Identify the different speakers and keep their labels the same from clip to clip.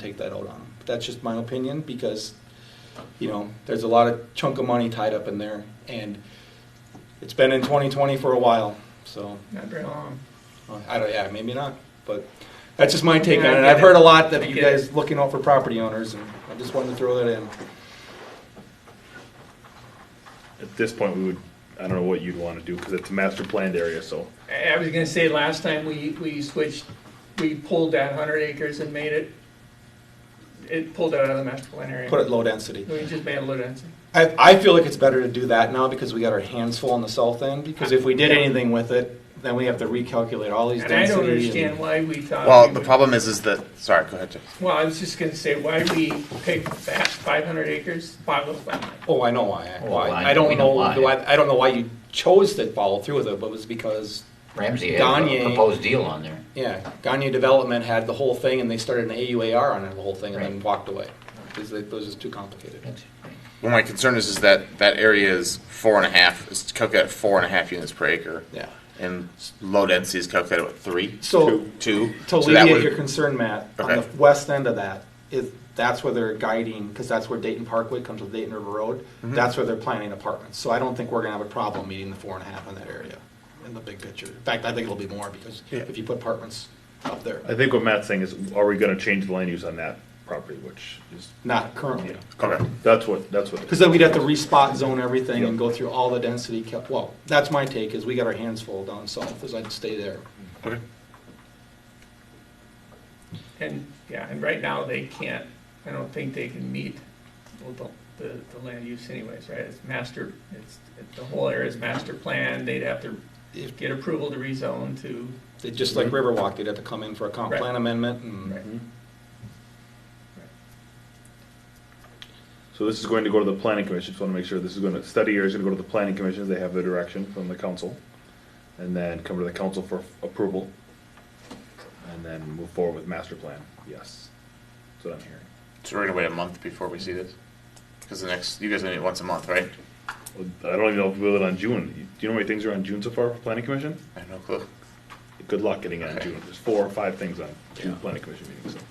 Speaker 1: take that out on them. But that's just my opinion because, you know, there's a lot of chunk of money tied up in there, and it's been in 2020 for a while. So
Speaker 2: Not very long.
Speaker 1: uh, I don't, yeah, maybe not, but that's just my take
Speaker 2: Yeah, I
Speaker 1: on it.
Speaker 2: get
Speaker 1: I've
Speaker 2: it.
Speaker 1: heard a lot that
Speaker 2: I
Speaker 1: you
Speaker 2: get it.
Speaker 1: guys looking out for property owners, and I just wanted to throw that in.
Speaker 3: At this point, we would, I don't know what you'd want to do, because it's a master planned area, so.
Speaker 2: I I was gonna say, last time we, we switched, we pulled that hundred acres and made it, it pulled it out of the master plan area.
Speaker 1: Put it low density.
Speaker 2: We just made it low density.
Speaker 1: I, I feel like it's better to do that now because we got our hands full on the south end. Because if we did anything with it, then we have to recalculate all these
Speaker 2: And I
Speaker 1: densities.
Speaker 2: don't understand why we thought.
Speaker 4: Well,
Speaker 2: we
Speaker 4: the
Speaker 2: would-
Speaker 4: problem is, is that, sorry, go ahead, Jeff.
Speaker 2: Well, I was just gonna say, why we picked that five hundred acres, five of them.
Speaker 1: Oh, I know why.
Speaker 5: Oh,
Speaker 1: why.
Speaker 5: I-
Speaker 1: I don't
Speaker 5: we know
Speaker 1: know.
Speaker 5: why.
Speaker 1: Why, I don't know why you chose to follow through with it, but it was because
Speaker 5: Ramsey had
Speaker 1: Gagne.
Speaker 5: a proposed deal on there.
Speaker 1: yeah, Gagne Development had the whole thing, and they started an AUAR on it, the whole thing, and then
Speaker 5: Right.
Speaker 1: walked away because it was just too complicated.
Speaker 4: Well, my concern is, is that that area is four and a half, is calculated at four and a half units per acre.
Speaker 1: Yeah.
Speaker 4: And low density is calculated at what, three?
Speaker 1: So-
Speaker 4: Two? Two?
Speaker 1: To
Speaker 4: So that
Speaker 1: alleviate
Speaker 4: would-
Speaker 1: your concern, Matt, on the
Speaker 4: Okay.
Speaker 1: west end of that is that's where they're guiding because that's where Dayton Parkway comes with Dayton River Road. That's where they're planning apartments. So I don't think we're gonna have a problem meeting the four and a half in that area in the big picture. In fact, I think it'll be more because
Speaker 4: Yeah.
Speaker 1: if you put apartments up there,
Speaker 3: I think what Matt's saying is, are we going to change the land use on that property, which is,
Speaker 1: not currently.
Speaker 4: Okay.
Speaker 3: that's what, that's what.
Speaker 1: Because then we'd have to respot zone everything and go through all the density. cal- Well, that's my take, is we got our hands full down south, is I'd stay there.
Speaker 4: Okay.
Speaker 2: And, yeah, and right now they can't, I don't think they can meet well, the, the, the land use anyways, right? It's master, it's, it- the whole area is master plan, they'd have to
Speaker 1: If-
Speaker 2: get approval to rezone to,
Speaker 1: They- Just
Speaker 4: Mm-hmm.
Speaker 1: like Riverwalk, they'd have to come in for a comp
Speaker 2: Right.
Speaker 1: plan amendment and.
Speaker 2: right?
Speaker 3: So this is going to go to the planning commission, just want to make sure this is going to, study area is going to go to the planning commission, they have the direction from the council. And then come to the council for approval. And then move forward with master plan, yes. That's what I'm hearing.
Speaker 4: So we're gonna wait a month before we see this? Because the next, you guys are gonna meet once a month, right?
Speaker 3: Well, I don't even know if we'll do it on June. Do you know how many things are on June so far for planning commission?
Speaker 4: I have no clue.
Speaker 3: Good luck getting it on June. There's four or five things on June planning commission meetings.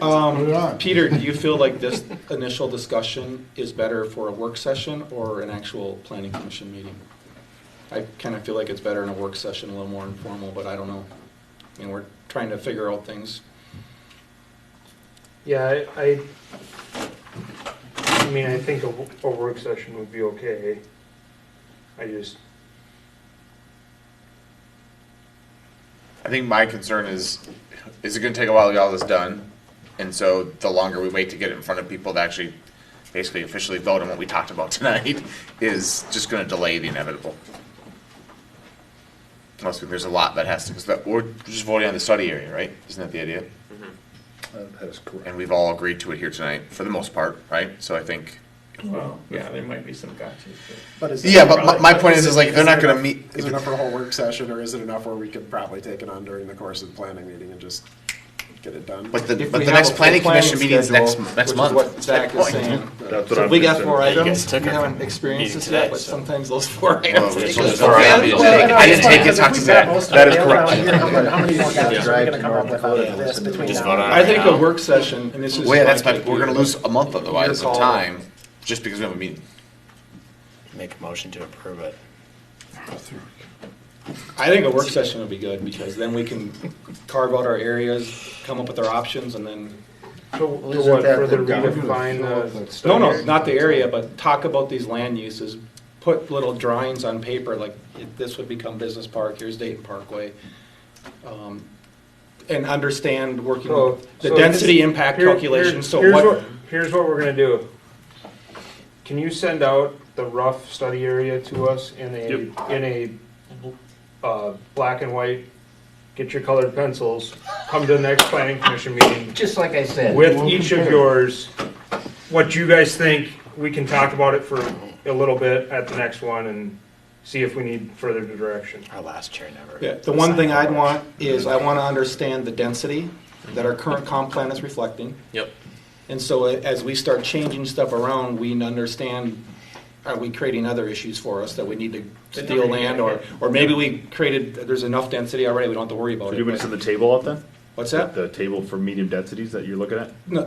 Speaker 3: so.
Speaker 1: Um, Peter, do you feel like this initial discussion is better for a work session or an actual planning commission meeting? I kind of feel like it's better in a work session, a little more informal, but I don't know. I mean, we're trying to figure out things.
Speaker 6: Yeah, I, I, I mean, I think a, w- a work session would be okay. I just,
Speaker 4: I think my concern is, is it gonna take a while to get all this done? And so the longer we wait to get it in front of people to actually basically officially vote on what we talked about tonight is just gonna delay the inevitable. Plus, there's a lot that has to, because that, we're just voting on the study area, right? Isn't that the idea?
Speaker 3: Uh, That is correct.
Speaker 4: And we've all agreed to it here tonight, for the most part, right? So I think.
Speaker 2: Well, yeah, there might be some gotchas, but
Speaker 7: But is it-
Speaker 4: Yeah, but my, my point is, is like, they're not gonna
Speaker 7: there enough-
Speaker 4: meet,
Speaker 7: Is it enough for a whole work session, or is it enough where we could probably take it on during the course of the planning meeting and just get it done?
Speaker 4: but the,
Speaker 1: If
Speaker 4: but
Speaker 1: we
Speaker 4: the
Speaker 1: have a
Speaker 4: next
Speaker 1: full
Speaker 4: planning commission
Speaker 1: planning
Speaker 4: meeting's next,
Speaker 1: schedule, which
Speaker 4: next
Speaker 1: is
Speaker 4: month.
Speaker 1: what
Speaker 4: That's my
Speaker 1: Zach is
Speaker 4: point.
Speaker 1: saying.
Speaker 3: That's what
Speaker 1: So
Speaker 3: I'm
Speaker 1: we got
Speaker 3: concerned
Speaker 1: four
Speaker 3: about.
Speaker 4: you
Speaker 1: items,
Speaker 4: guys took
Speaker 1: we
Speaker 4: it
Speaker 1: haven't
Speaker 4: from
Speaker 1: experienced this
Speaker 4: today,
Speaker 1: yet, but
Speaker 4: so.
Speaker 1: sometimes those four
Speaker 4: Well,
Speaker 1: items. take
Speaker 4: it's just
Speaker 1: us
Speaker 4: four
Speaker 1: four
Speaker 4: items.
Speaker 1: hours.
Speaker 4: Well, I know, I didn't take it, talk to Zach. That is correct.
Speaker 7: How many more guys are we gonna come up with out of this between
Speaker 4: Just
Speaker 7: now and
Speaker 4: vote on
Speaker 1: I think a work session, and this is.
Speaker 4: Well, yeah, that's
Speaker 1: my
Speaker 4: my,
Speaker 1: take,
Speaker 4: we're gonna
Speaker 1: Peter,
Speaker 4: lose
Speaker 1: but
Speaker 4: a month otherwise
Speaker 1: your call.
Speaker 4: of time, just because we have a meeting.
Speaker 8: Make a motion to approve it.
Speaker 1: I think a work session would be good, because then we can carve out our areas, come up with our options, and then
Speaker 6: so what, further redefine the
Speaker 1: No,
Speaker 6: study?
Speaker 1: no, not the area, but talk about these land uses, put little drawings on paper, like if this would become Business Park, here's Dayton Parkway. um, And understand working
Speaker 6: So-
Speaker 1: with the
Speaker 6: so
Speaker 1: density
Speaker 6: this-
Speaker 1: impact
Speaker 6: here- here-
Speaker 1: calculation, so
Speaker 6: here's
Speaker 1: what,
Speaker 6: Here's what we're gonna do. Can you send out the rough study area to us in a, in a, uh, black and white? Get your colored pencils, come to the next planning commission meeting,
Speaker 5: Just like I said.
Speaker 6: with each of yours, what you guys think, we can talk about it for a little bit at the next one and see if we need further direction.
Speaker 8: Our last chair never.
Speaker 1: Yeah, the one thing I'd want is I wanna understand the density that our current comp plan is reflecting.
Speaker 4: Yep.
Speaker 1: And so a- as we start changing stuff around, we understand, are we creating other issues for us that we need to
Speaker 2: Then
Speaker 1: steal
Speaker 2: nobody-
Speaker 1: land? Or, or maybe we created, there's enough density already, we don't have to worry about
Speaker 3: Do
Speaker 1: it.
Speaker 3: you want me to send the table out then?
Speaker 1: What's that?
Speaker 3: The table for medium densities that you're looking at?